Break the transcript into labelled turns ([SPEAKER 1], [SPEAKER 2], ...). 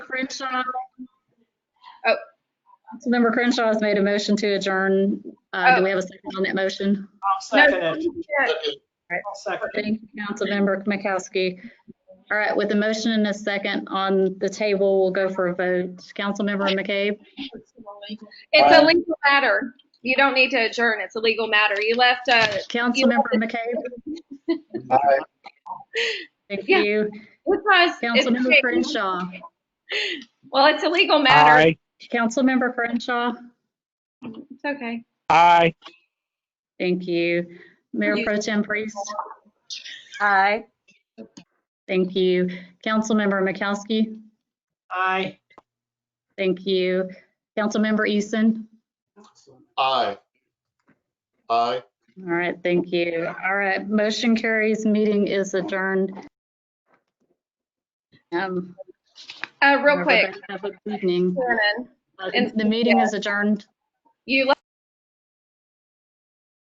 [SPEAKER 1] Crenshaw. Oh, Councilmember Crenshaw has made a motion to adjourn. Uh, Do we have a second on that motion?
[SPEAKER 2] I'll second it.
[SPEAKER 3] No,
[SPEAKER 2] I'll second it.
[SPEAKER 1] Thank you, Councilmember Makowski. All right, with a motion and a second on the table, we'll go for a vote. Councilmember McCabe?
[SPEAKER 3] It's a legal matter. You don't need to adjourn. It's a legal matter. You left, uh,
[SPEAKER 1] Councilmember McCabe?
[SPEAKER 4] Aye.
[SPEAKER 1] Thank
[SPEAKER 3] Yeah.
[SPEAKER 1] you.
[SPEAKER 3] it's not-
[SPEAKER 1] Councilmember
[SPEAKER 3] it's-
[SPEAKER 1] Crenshaw?
[SPEAKER 3] Well, it's a legal matter.
[SPEAKER 1] Councilmember Crenshaw?
[SPEAKER 3] It's okay.
[SPEAKER 5] Aye.
[SPEAKER 1] Thank you. Mayor
[SPEAKER 3] You-
[SPEAKER 1] Pro Tem Priest?
[SPEAKER 6] Aye.
[SPEAKER 1] Thank you. Councilmember Makowski?
[SPEAKER 2] Aye.
[SPEAKER 1] Thank you. Councilmember Easton?
[SPEAKER 4] Aye. Aye.
[SPEAKER 1] All right, thank you. All right, motion carries, meeting is adjourned. Um,
[SPEAKER 3] Uh, real quick,
[SPEAKER 1] everybody Have a good evening.
[SPEAKER 3] Shannon,
[SPEAKER 1] Uh,
[SPEAKER 3] And-
[SPEAKER 1] The meeting is adjourned.
[SPEAKER 3] you